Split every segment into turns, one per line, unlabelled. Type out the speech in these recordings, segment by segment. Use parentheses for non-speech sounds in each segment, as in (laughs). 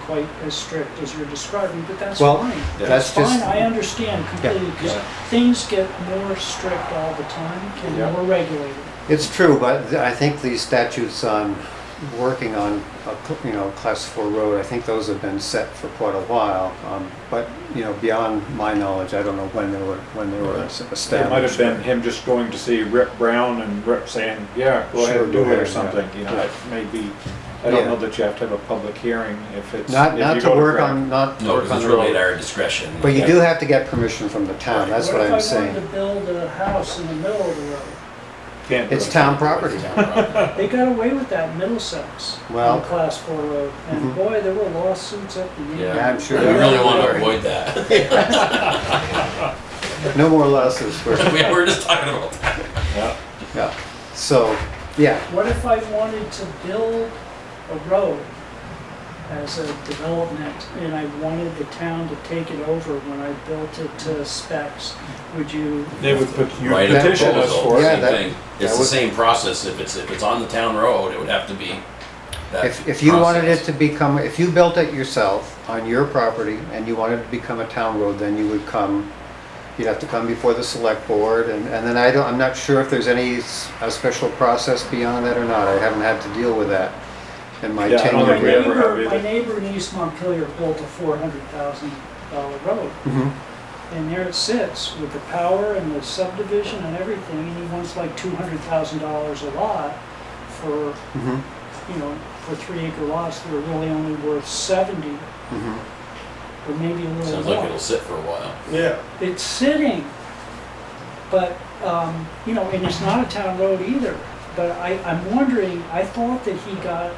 quite as strict as you're describing, but that's
Well,
fine.
that's
Fine,
just,
I understand completely, because
Yeah.
things get more strict all the time
Yeah.
and more regulated.
it's true, but th- I think these statutes on working on, a cl- you know, class four road, I think those have been set for quite a while. Um, But, you know, beyond my knowledge, I don't know when they were, when they were es-
It might have
established.
been him just going to see Rip Brown and Rip saying, yeah, go ahead
Sure,
and
go
do it or
ahead, yeah.
something, you know,
Yeah.
it may be, I don't
Yeah.
know that you have to have a public hearing if it's.
Not,
if
not
you
to
go
work
Greg.
on, not to
No,
work
because
on
it's
the
really at
road.
our discretion.
But you do have to get permission from the town, that's what I'm
What
saying.
if I wanted to build a house in the middle of the road?
Can't do
It's
it.
town property.
(laughs)
They got away with that in Middlesex
Well-
on Class 4 road,
Mhm.
and boy, there were lawsuits up the
Yeah,
end.
I'm
We
sure.
really want to avoid
(laughs)
that. (laughs)
No more losses for,
We were just talking about that.
Yeah.
yeah. So, yeah,
What if I wanted to build a road as a development, and I wanted the town to take it over when I built it to specs? Would you
They would put, you
Write a
petition us
proposal,
for it.
Yeah,
same
that-
thing. It's
that
the
would-
same process. If it's, if it's on the town road, it would have to be that
If, if you wanted it
process.
to become, if you built it yourself on your property and you wanted it to become a town road, then you would come, you'd have to come before the select board and, and then I don't, I'm not sure if there's any, s- a special process beyond that or not. I haven't had to deal with that in my
Yeah, I don't
tenure
My
think we
here.
ever have
neighbor,
either.
my neighbor in East Montpelier built a four hundred thousand dollar road,
Mhm.
and there it sits with the power and the subdivision and everything, and he wants like two hundred thousand dollars a lot for,
Mhm.
you know, for three acre lots that are really only worth seventy,
Mhm.
or maybe a little
Sounds like it'll
more.
sit for a while.
Yeah.
It's sitting, but, um, you know, and it's not a town road either, but I, I'm wondering, I thought that he got,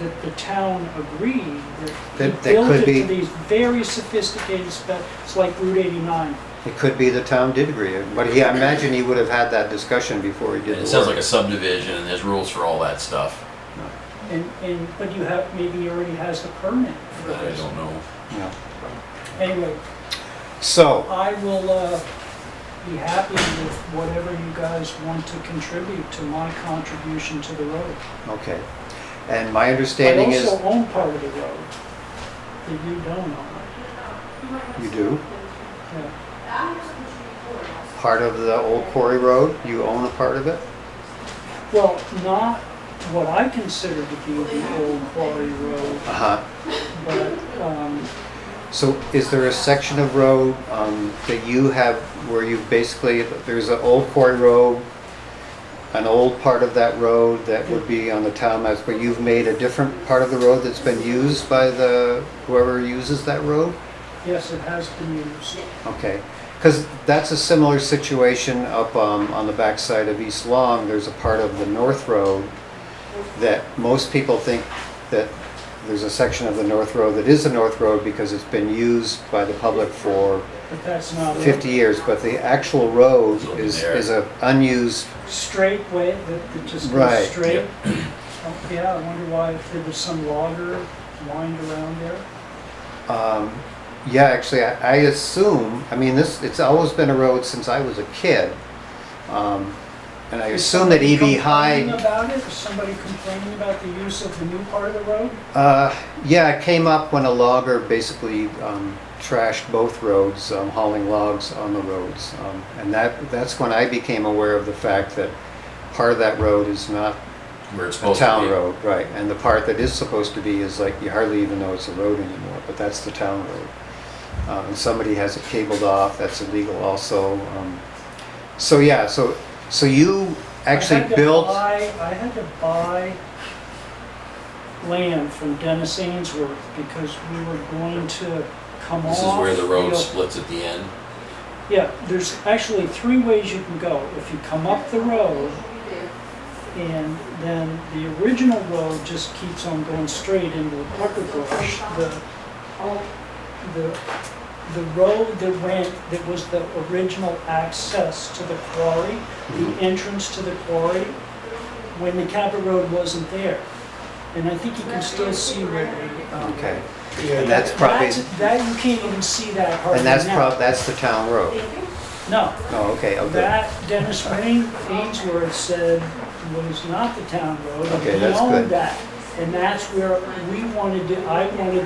that the town agreed that
That- that
he built
could
it
be-
to these very sophisticated specs, it's like Route eighty-nine.
It could be the town did agree, but he, I imagine he would have had that discussion before he
And
did
It
the
sounds like
work.
a subdivision and there's rules for all that stuff.
And, and, but you have, maybe he already has the permit for
That I
this.
don't know.
Yeah.
Anyway,
So,
I will, uh, be happy with whatever you guys want to contribute to my contribution to the road.
okay. And my understanding is,
I also own part of the road that you don't own.
you do,
Yeah.
part of the old quarry road, you own a part of it?
Well, not what I consider to be the old quarry road,
Uh-huh.
but, um,
So is there a section of road um, that you have where you basically, there's an old quarry road, an old part of that road that would be on the town maps, but you've made a different part of the road that's been used by the, whoever uses that road?
yes, it has been used.
Okay, because that's a similar situation up um, on the backside of East Long. There's a part of the North Road that most people think that there's a section of the North Road that is the North Road because it's been used by the public for
But that's not a
50 years, but the actual road
It's over
is,
there.
is a unused,
straight way that that just
Right.
goes straight. Oh, Yeah, I wonder why, if there was some logger lined around there.
um, yeah, actually, I I assume, I mean, this, it's always been a road since I was a kid. Um, And I
Is
assume that E
somebody
E.B. Hyde
Complaining about it, is somebody complaining about the use of the new part of the road?
Uh, yeah, it came up when a logger basically um, trashed both roads, um, hauling logs on the roads, um, and that that's when I became aware of the fact that part of that road is not
Where it's
a
supposed to be.
town road, right? And the part that is supposed to be is like you hardly even know it's a road anymore, but that's the town road. Uh, and somebody has it cabled off. That's illegal, also. Um, so yeah, so so you actually
I had to
built.
buy- I had to buy land from Dennis Ainsworth because we were going to come off.
This is where the road
know-
splits at the end.
Yeah, there's actually three ways you can go. If you come up the road and then the original road just keeps on going straight into the pucker brush. The, the, the road that went, that was the original access to the quarry, the entrance to the quarry, when the Cabot Road wasn't there. And I think you can still see where they. um,
Okay, and that's probably
that's- That, you can't even see that hardly now.
and that's prob that's the town road.
No,
Oh, okay, okay.
that Dennis Rain, Ainsworth said was not the town road, and
Okay,
he
that's good.
owned that. And that's where we wanted to, I wanted